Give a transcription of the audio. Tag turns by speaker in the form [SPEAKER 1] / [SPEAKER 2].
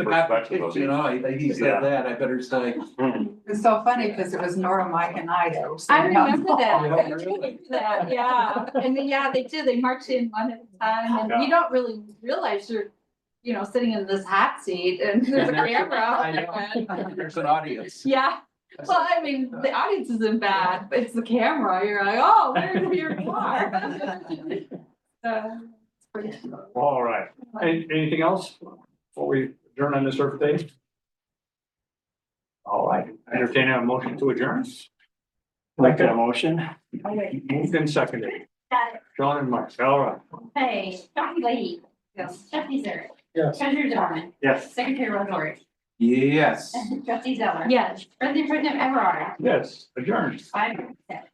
[SPEAKER 1] The
[SPEAKER 2] perspective of
[SPEAKER 1] competition, I, "Oh, he
[SPEAKER 2] Yeah.
[SPEAKER 1] said that, I better say.
[SPEAKER 2] Mm-hmm.
[SPEAKER 3] It's so funny because it was Nora, Mike and I that were
[SPEAKER 4] I
[SPEAKER 3] sitting down.
[SPEAKER 4] remember that.
[SPEAKER 1] Yeah,
[SPEAKER 4] I remember
[SPEAKER 1] really.
[SPEAKER 4] That, yeah, and then, yeah, they did, they marched in one at a time, and
[SPEAKER 2] Yeah.
[SPEAKER 4] you don't really realize you're, you know, sitting in this hot seat and there's a
[SPEAKER 1] And there's-
[SPEAKER 4] camera.
[SPEAKER 1] I
[SPEAKER 4] out there.
[SPEAKER 1] know, there's an audience.
[SPEAKER 4] Yeah, well, I mean, the audience isn't bad, but it's the camera, you're like, oh, where do you are? So, it's pretty cool.
[SPEAKER 2] All right, Any- anything else before we adjourn on this Earth Day? All right, I entertain a motion to adjourn. Like that motion? Moved and seconded. John and Mike, all right.
[SPEAKER 5] Hey, Dr. Leahy, Trustee Zer,
[SPEAKER 2] Yes.
[SPEAKER 5] Treasurer Zimmerman,
[SPEAKER 2] Yes.
[SPEAKER 5] Secretary Wazorek,
[SPEAKER 1] Yes.
[SPEAKER 5] Trustee Zeller.
[SPEAKER 4] Yes.
[SPEAKER 5] President Pro Tem Everard,
[SPEAKER 2] Yes, adjourned.
[SPEAKER 5] five, six.